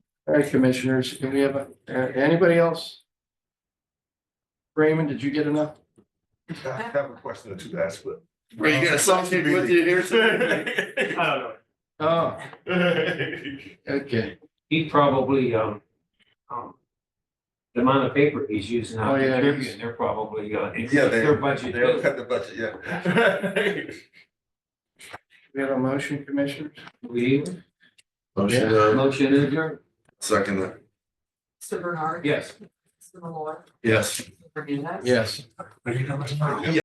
All right, commissioners, can we have, uh, anybody else? Raymond, did you get enough? I have a question or two to ask, but. Were you gonna something with you here? I don't know. Oh, okay. He probably, um, um. The amount of paper he's using Oh, out yeah, there, he's- they're probably, uh, it's Yeah, they- their budget. They don't cut the budget, yeah. We have a motion, commissioners? We, Motion, motion adjourned, Second, that. Mr. Bernard. yes. Mr. Malloy. yes. Mr. Hernandez. Yes. Yeah.